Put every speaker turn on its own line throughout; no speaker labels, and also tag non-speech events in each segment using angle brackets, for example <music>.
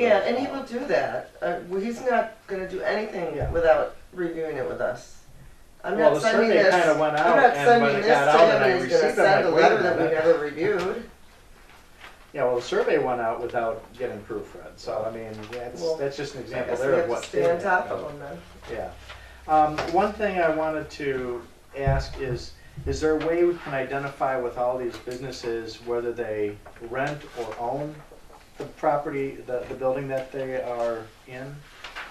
Yeah, and he will do that. Uh, well, he's not gonna do anything without reviewing it with us. I'm
Well,
not
the
sending
survey
this,
kinda
I'm
went out,
not
and when
sending
it
this
got
to
out
him
and I
and he's gonna
received it, I'm
send a
like, wait a
letter that we
minute.
never reviewed.
Yeah, well, the survey went out without getting proofread, so I mean, that's,
Well,
that's just an <laughs>
I
example
guess we
there of
have to
what.
stay on
did
top
happen.
of him then.
Yeah. Um, one thing I wanted to ask is, is there a way we can identify with all these businesses whether they rent or own the property, the, the building that they are in?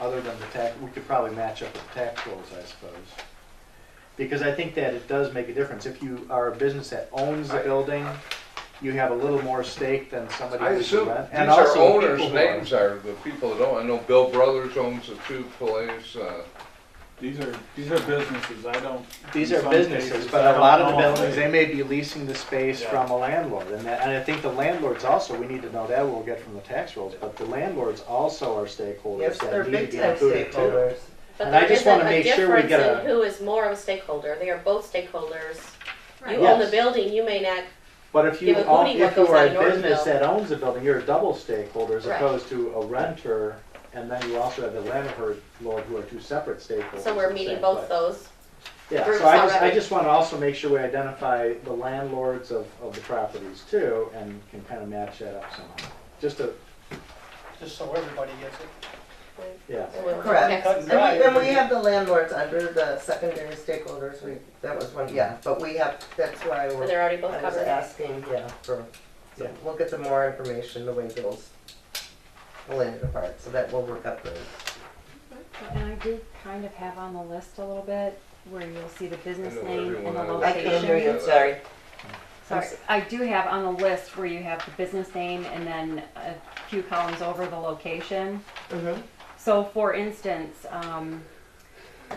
Other than the tax, we could probably match up with tax rolls, I suppose. Because I think that it does make a difference. If you are a business that owns the
I-
building, you have a little more stake than somebody
I
who's a
assume
rent.
these
And
are
also
owners'
people who are-
names are the people that own, I know Bill Brothers owns the two place, uh,
These are, these are businesses, I don't,
These
In
are
some
businesses,
cases, I
but a
don't
lot of the
know if
buildings,
they-
they may be leasing the space
Yeah.
from a landlord, and that, and I think the landlords also, we need to know that, we'll get from the tax rolls, but the landlords also are stakeholders
Yes, they're
that need
big
to be
time
included too. And
stakeholders.
But
I
there
just
isn't
wanna
a
make sure we
difference
get a-
in who is more of a stakeholder. They are both stakeholders. You
Right.
own the
Yes.
building, you may not,
But if you,
Give a
own-
hootie
if
what
you
goes
are
on
a
your
business
bill.
that owns a building, you're a double stakeholder as
Right.
opposed to a renter, and then you also have the landlord who are two separate stakeholders.
so
in
we're
the
meeting
same
both
place.
those.
Yeah,
groups
so I just, I
already.
just wanna also make sure we identify the landlords of, of the properties too, and can kinda match that up somehow. Just a,
just so everybody gets it.
yeah.
So we're-
Correct.
Cut
next-
and
And
dry.
we, and we have the landlords under the secondary stakeholders, we, that was one, yeah, but we have, that's why we're.
And they're already both
I was
covered.
asking, yeah, for, so
Yeah.
we'll get some more information, the way bills will end apart, so that will work out great.
And I do kind of have on the list a little bit where you'll see the business
I know
name
everyone
and the
I know.
I can't hear
location.
you, sorry.
Sorry, I do have on the list where you have the business name and then a few columns over the location.
Mhm.
So for instance, um,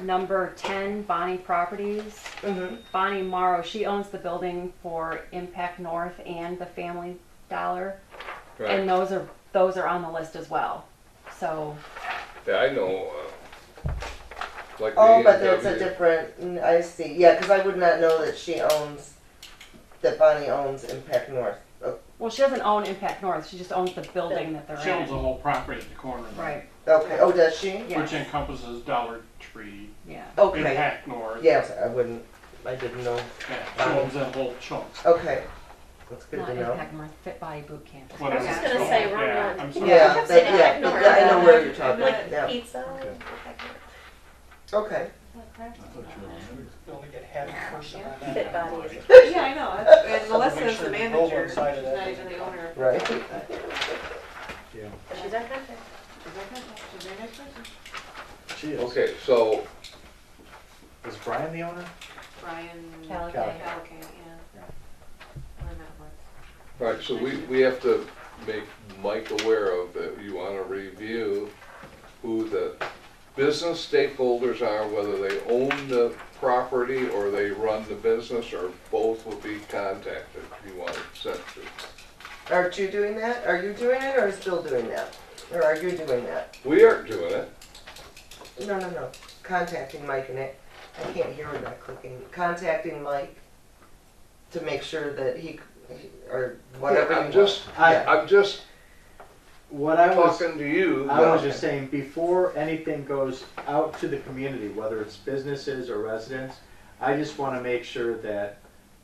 number ten, Bonnie Properties.
Mhm.
Bonnie Morrow, she owns the building for Impact North and the Family Dollar. And
right,
those are, those are on the list as well. So,
yeah, I know, uh, like the
Oh, but that's a
E&W.
different, mm, I see, yeah, cause I would not know that she owns, that Bonnie owns Impact North. Oh,
well, she doesn't own Impact North, she just owns the building that they're in.
She owns the whole property at the corner. of it,
Right,
Okay, oh, does she?
yeah,
Which encompasses Dollar Tree,
yeah.
Okay,
Impact North,
yes, I wouldn't, I didn't know,
yeah, she owns that whole chunk.
okay, that's good
Not
to know.
Impact North, Fit Body Boot Camp. is
Whatever.
what
just
it's
gonna
called.
say,
Yeah,
wrong one.
I'm sorry.
Yeah, that,
kept saying
yeah,
Impact
yeah, I know
North.
where you're talking,
Like
yeah,
pizza.
Okay.
okay.
You only get half a person on that.
Fit body. is-
Yeah, I
<laughs>
know, That's- and Melissa is the
Make sure you roll
manager,
one
she's
side of that.
not even the owner.
Right.
But she's our contact.
She's like, "Oh, she's a very nice person."
She is.
Okay, so,
Is Brian the owner?
Brian.
Calico.
Calico, yeah.
Yeah.
I don't know what.
right, so we, we have to make Mike aware of that you wanna review who the business stakeholders are, whether they own the property or they run the business, or both will be contacted, you want it sent to.
Aren't you doing that? Are you doing it or is Bill doing that? Or are you doing that?
We aren't doing it,
No, no, no. Contacting Mike and it. I can't hear without clicking. Contacting Mike to make sure that he, or whatever you
I'm
want.
just,
I,
Yeah.
I'm just
what I was,
talking to you.
I was just saying, before anything goes out to the community, whether it's businesses or residents, I just wanna make sure that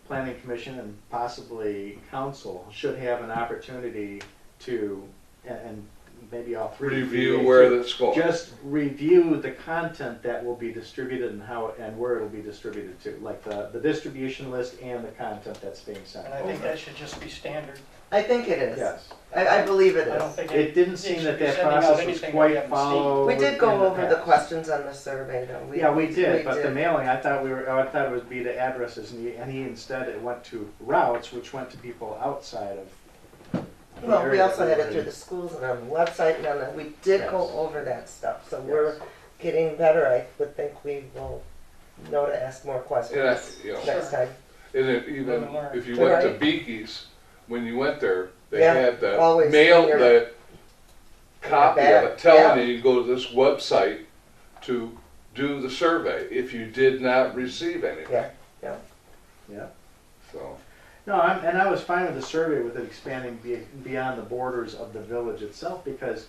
planning commission and possibly council should have an opportunity to, and, and maybe all three.
Review
maybe
where
two,
that's going.
Just review the content that will be distributed and how, and where it'll be distributed to, like the, the distribution list and the content that's being sent.
And I think that should just be standard.
I think it is.
Yes.
I, I believe it
I don't
is.
think.
It didn't seem
should
that
be
that
sending out
process was
anything that we
quite
haven't seen.
followed.
We did go
in the
over the
past.
questions on the survey though.
Yeah, we
we
did, but the
did.
mailing, I thought we were, oh, I thought it would be to addresses, and he, and he instead, it went to routes, which went to people outside of. the
Well, we
area
also
that
had
were
it
in.
through the schools and on the website and on the, we did go
Yes.
over that stuff, so
Yes.
we're getting better. I would think we will know to ask more
And I,
questions
you know,
next time.
and if, even if you went to Beaky's, when you went there, they
Yeah,
had the
always
mail,
in your-
the copy of
bag,
it telling
yeah.
you, you go to this website to do the survey, if you did not receive anything,
Yeah,
Yeah,
so.
no, I'm, and I was fine with the survey with it expanding be, beyond the borders of the village itself, because